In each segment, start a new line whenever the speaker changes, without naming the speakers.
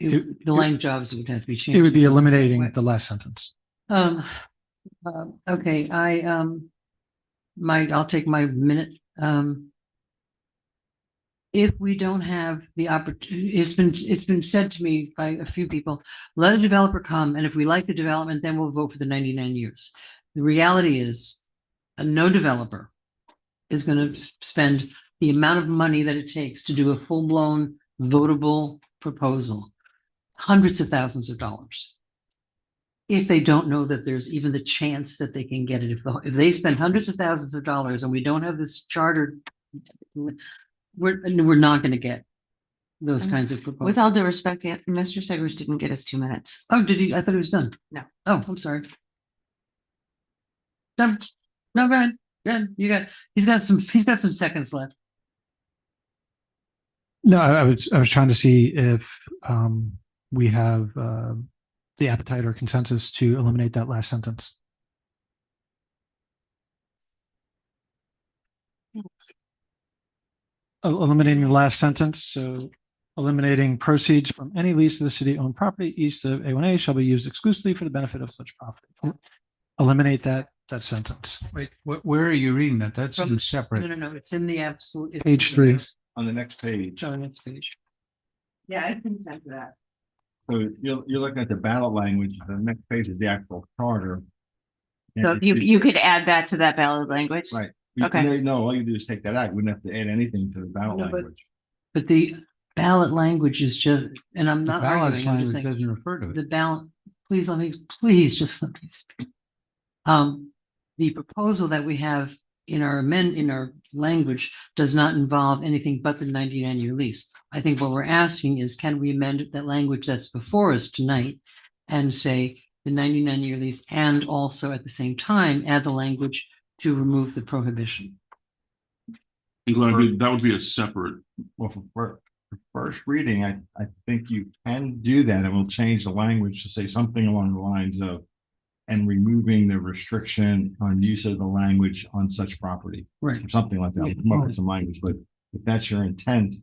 It-
The line jobs would have to be
It would
changed.
be eliminating the last sentence.
Um, um, okay, I, um, my, I'll take my minute, um. If we don't have the opportunity, it's been, it's been said to me by a few people, let a developer come and if we like the development, then we'll vote for the ninety-nine years. The reality is, uh, no developer is gonna spend the amount of money that it takes to do a full-blown votable proposal. Hundreds of thousands of dollars if they don't know that there's even the chance that they can get it, if, the- if they spend hundreds of thousands of dollars and we don't have this chartered, we're, we're not gonna get those kinds of proposals.
Mm. With all due respect, Dan- Mr. Segers didn't get us two minutes.
Oh, did he? I thought it was done.
No.
Oh, I'm sorry. Done. No, go ahead. Good. You got, he's got some, he's got some seconds left.
No, I I was, I was trying to see if um, we have uh, the appetite or consensus to eliminate that last sentence. El- Eliminating the last sentence, so eliminating proceeds from any lease of the city-owned property east of A1A shall be used exclusively for the benefit of such property. Eliminate that, that sentence.
Wait, wh- where are you reading that? That's
From-
in
No,
separate.
no, no, it's in the absolute. it's
Page three.
on the next page.
On its page.
Yeah, I can send that.
So you're, you're looking at the ballot language. The next page is the actual charter.
So
And
you,
it-
you could add that to that ballot language.
Right. you-
okay.
no, No, all you do is take that out. You wouldn't have to add anything to the ballot
No, but-
language.
But the ballot language is just, and I'm
The
not
ballot
arguing, I'm
language
just saying.
doesn't refer to
the
it.
balance, please let me, please just let me speak. Um, the proposal that we have in our amend, in our language does not involve anything but the ninety-nine year lease. I think what we're asking is can we amend that language that's before us tonight and say the ninety-nine year lease and also at the same time add the language to remove the prohibition.
And Glenn, but that would be a separate,
Well, for fir- for first reading, I, I think you can do that. and we will change the language to say something along the lines of and removing the restriction on use of the language on such property,
Right.
or something like that. We'll Come up with some language, but if that's your intent,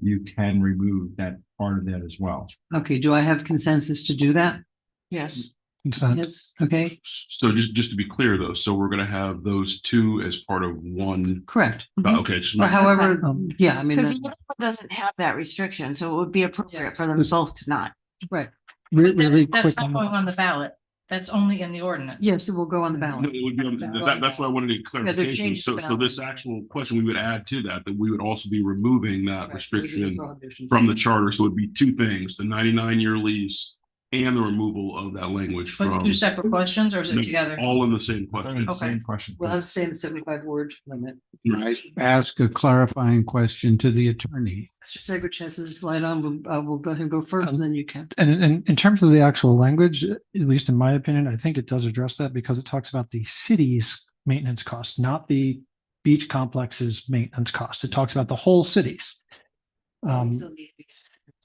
you can remove that part of that as well.
Okay, do I have consensus to do that?
Yes.
Consent.
Yes, okay,
so just, just to be clear though, so we're gonna have those two as part of one,
correct.
uh, okay, just
Or
not-
however, yeah, I mean,
Because
that's
one doesn't have that restriction, so it would be appropriate for them
Yes.
both to not.
right.
Re-
That-
Really
That's
quick.
not
on
going
that.
on the ballot. That's only in the ordinance.
Yes, it will go on the ballot.
No, it would be on- that- that's why I wanted a clarification.
changed
So,
the
so this
ballot.
actual question, we would add to that, that we would also be removing that
Correct. Those are the
restriction
prohibitions.
from the charter. So it'd be two things, the ninety-nine year lease and the removal of that language from,
But two separate questions or is
No,
it together?
all in the same
They're in
question.
the
Okay.
Same question.
Well, I'm saying the seventy-five word limit.
Right.
Ask a clarifying question to the attorney.
Mr. Segrich has his light on. We'll, uh, we'll let him go first and then you can.
And in- in, in terms of the actual language, at least in my opinion, I think it does address that because it talks about the city's maintenance costs, not the beach complex's maintenance costs. It talks about the whole cities. Um,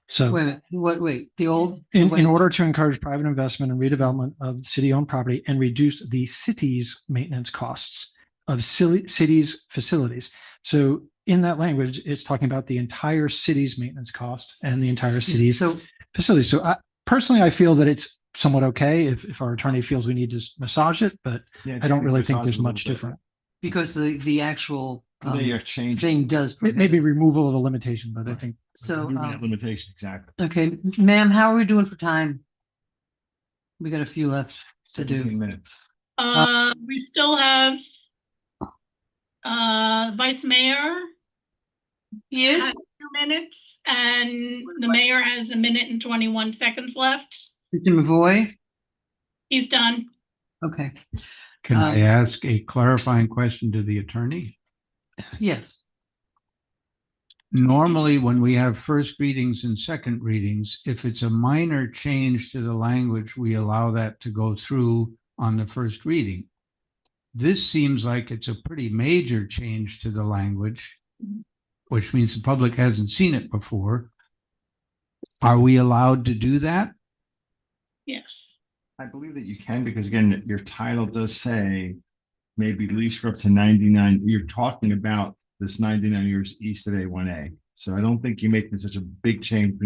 so
Wait, a minute, what, wait, the old? the
in,
way-
in order to encourage private investment and redevelopment of city-owned property and reduce the city's maintenance costs of city, cities' facilities. So in that language, it's talking about the entire city's maintenance cost and the entire
Mm-hmm.
city's
So,
facility. So I personally, I feel that it's somewhat okay if, if our attorney feels we need to massage it, but
Yeah,
I don't
it's
really think
massaged
there's
a little
much
bit.
different.
because the, the actual um,
They are changing.
thing does.
It may be removal of a limitation, but I think
So,
Removing that
um,
Limitation, exactly.
okay, ma'am, how are we doing for time? We got a few left to do.
Seventeen minutes.
Uh, we still have uh, Vice Mayor,
He
has
is?
two minutes, and the mayor has a minute and twenty-one seconds left.
Mr. Mavoy?
He's done.
Okay,
Can I
Um,
ask a clarifying question to the attorney?
yes,
Normally, when we have first readings and second readings, if it's a minor change to the language, we allow that to go through on the first reading. This seems like it's a pretty major change to the language, which means the public hasn't seen it before. Are we allowed to do that?
Yes.
I believe that you can, because again, your title does say maybe lease for up to ninety-nine, you're talking about this ninety-nine years east of A one A. So I don't think you're making such a big change